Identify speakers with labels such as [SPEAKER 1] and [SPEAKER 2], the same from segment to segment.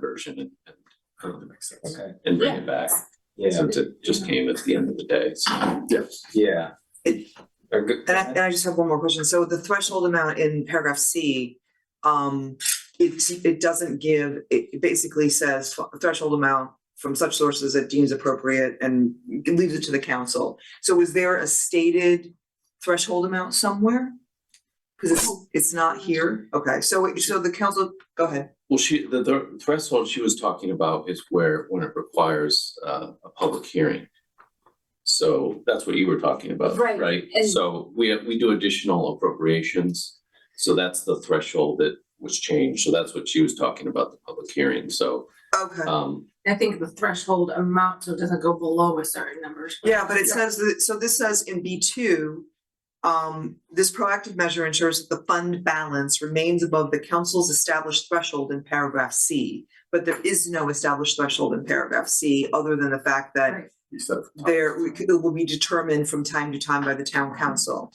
[SPEAKER 1] version and, and, um,
[SPEAKER 2] makes sense.
[SPEAKER 3] Okay,
[SPEAKER 1] and bring it back.
[SPEAKER 3] yeah,
[SPEAKER 1] Since it just came at the end of the day, so.
[SPEAKER 3] yeah.
[SPEAKER 4] It-
[SPEAKER 3] Or good,
[SPEAKER 4] And I, and I just have one more question. So the threshold amount in paragraph C, um, it, it doesn't give, it it basically says threshold amount from such sources that deems appropriate and leaves it to the council. So is there a stated threshold amount somewhere? Cause it's, it's not here. Okay, so, it- so the council, go ahead.
[SPEAKER 1] Well, she, the, the threshold she was talking about is where, when it requires, uh, a public hearing. So that's what you were talking about,
[SPEAKER 5] Right,
[SPEAKER 1] right?
[SPEAKER 5] and-
[SPEAKER 1] So we, have- we do additional appropriations. So that's the threshold that was changed. So that's what she was talking about, the public hearing. So,
[SPEAKER 4] Okay.
[SPEAKER 1] um,
[SPEAKER 5] I think the threshold amount, so it doesn't go below a certain number. so-
[SPEAKER 4] Yeah, but it says that, so this says in B two, um, this proactive measure ensures that the fund balance remains above the council's established threshold in paragraph C. But there is no established threshold in paragraph C, other than the fact that
[SPEAKER 5] Right.
[SPEAKER 2] You said it.
[SPEAKER 4] there, we could- it will be determined from time to time by the town council.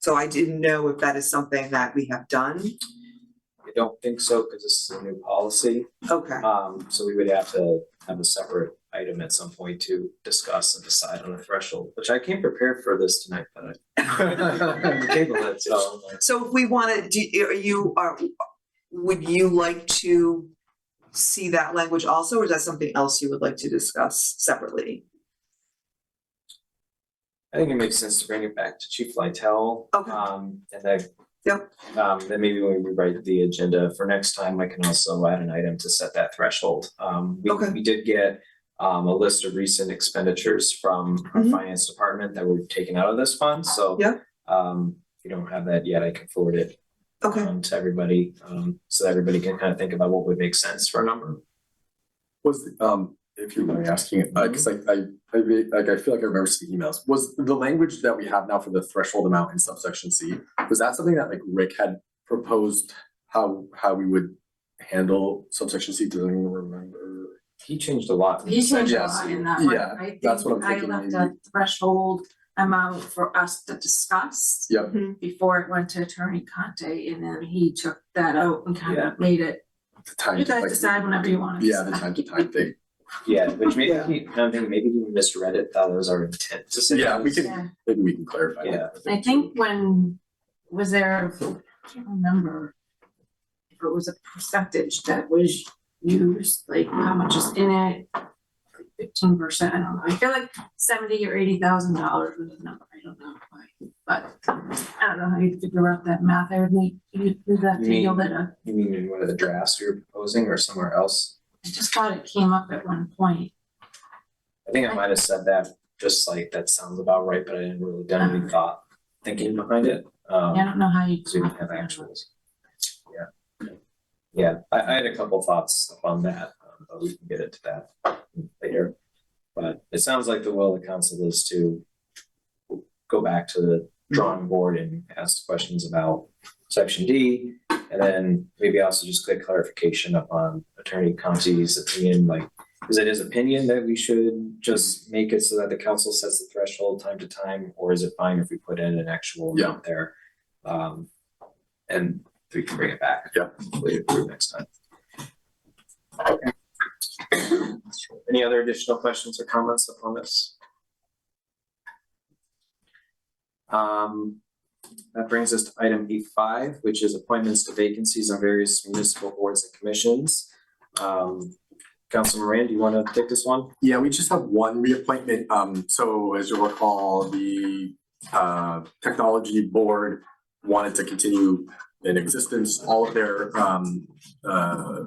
[SPEAKER 4] So I didn't know if that is something that we have done.
[SPEAKER 3] I don't think so, because this is a new policy.
[SPEAKER 4] Okay,
[SPEAKER 3] Um, so we would have to have a separate item at some point to discuss and decide on the threshold, which I came prepared for this tonight, but I. Table it, so.
[SPEAKER 4] so if we wanna, do, are you, are, would you like to see that language also, or is that something else you would like to discuss separately?
[SPEAKER 3] I think it makes sense to bring it back to Chief Lytell.
[SPEAKER 4] Okay.
[SPEAKER 3] Um, and then.
[SPEAKER 4] Yep.
[SPEAKER 3] Um, then maybe when we rewrite the agenda for next time, I can also add an item to set that threshold. Um, we,
[SPEAKER 4] Okay.
[SPEAKER 3] we did get um, a list of recent expenditures from our
[SPEAKER 4] Mhm.
[SPEAKER 3] finance department that we've taken out of this fund, so.
[SPEAKER 4] Yeah.
[SPEAKER 3] Um, if you don't have that yet, I can forward it
[SPEAKER 4] Okay,
[SPEAKER 3] um, to everybody, um, so that everybody can kind of think about what would make sense for a number.
[SPEAKER 2] Was, um, if you mind me asking it, uh, cause I, I, I, re- like, I feel like I remember seeing emails, was the language that we have now for the threshold amount in subsection C, was that something that like Rick had proposed? How, how we would handle subsection C, does anyone remember?
[SPEAKER 3] He changed a lot.
[SPEAKER 5] You changed a
[SPEAKER 2] Yes.
[SPEAKER 5] lot in that one.
[SPEAKER 2] Yeah,
[SPEAKER 5] I
[SPEAKER 2] that's what
[SPEAKER 5] think
[SPEAKER 2] I'm
[SPEAKER 5] I
[SPEAKER 2] thinking
[SPEAKER 5] left a
[SPEAKER 2] maybe.
[SPEAKER 5] threshold amount for us to discuss
[SPEAKER 2] Yep,
[SPEAKER 5] before it went to Attorney Conte, and then he took that out and kind
[SPEAKER 3] Yeah.
[SPEAKER 5] of made it,
[SPEAKER 2] the time.
[SPEAKER 5] you guys
[SPEAKER 2] like-
[SPEAKER 5] decide whenever you want to
[SPEAKER 2] Yeah,
[SPEAKER 5] decide.
[SPEAKER 2] the time to time thing,
[SPEAKER 3] Yeah, which maybe, he- I'm thinking maybe he misread it, thought it was our intent to say.
[SPEAKER 2] Yeah, we
[SPEAKER 3] this.
[SPEAKER 2] can-
[SPEAKER 5] Yeah.
[SPEAKER 2] maybe we can clarify
[SPEAKER 3] Yeah.
[SPEAKER 2] that.
[SPEAKER 5] I think when, was there, I can't remember if it was a percentage that was used, like how much is in it? Fifteen percent, I don't know. I feel like seventy or eighty thousand dollars was the number. I don't know why, but I don't know how you figure out that math. I would need, you'd you'd have to
[SPEAKER 3] Me.
[SPEAKER 5] yield it up.
[SPEAKER 3] You mean in one of the drafts we were proposing or somewhere else?
[SPEAKER 5] I just thought it came up at one point.
[SPEAKER 3] I think I might have said that, just like, that sounds about right, but I didn't really done any thought, thinking behind it.
[SPEAKER 5] I
[SPEAKER 3] Um,
[SPEAKER 5] don't know how you.
[SPEAKER 3] so we didn't have actuals. Yeah. Yeah, I, I had a couple thoughts on that, um, but we can get into that later. But it sounds like the will of the council is to go back to the drawing board and ask questions about section D. And then maybe also just quick clarification upon Attorney Conti's opinion, like, is it his opinion that we should just make it so that the council sets the threshold time to time? Or is it fine if we put in an actual
[SPEAKER 2] Yeah.
[SPEAKER 3] note there? Um, and we can bring it back.
[SPEAKER 2] Yeah.
[SPEAKER 3] Later for next time. Any other additional questions or comments upon this? Um, that brings us to item E five, which is appointments to vacancies on various municipal boards and commissions. Um, Council Moran, do you wanna take this one?
[SPEAKER 2] Yeah, we just have one reappointment. Um, so as you'll recall, the uh technology board wanted to continue in existence. All of their um uh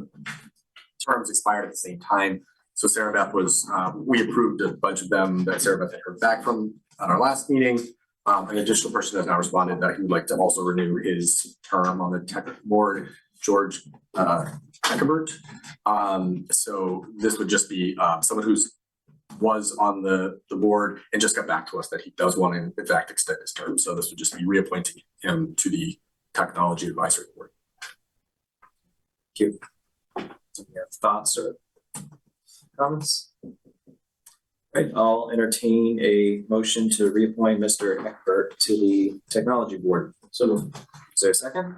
[SPEAKER 2] terms expired at the same time. So Sarah Beth was, uh, we approved a bunch of them that Sarah Beth had heard back from at our last meeting. Um, an additional person has now responded that he would like to also renew his term on the tech board, George uh Eckert. Um, so this would just be, um, someone who's was on the, the board and just got back to us that he does want to in fact extend his term. So this would just be reappointing him to the Technology Advisory Board.
[SPEAKER 3] Do you have thoughts or comments? Right, I'll entertain a motion to reappoint Mr. Eckbert to the Technology Board. So, is there a second?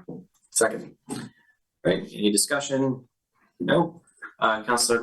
[SPEAKER 2] Second,
[SPEAKER 3] Right, any discussion? No? Uh, Counselor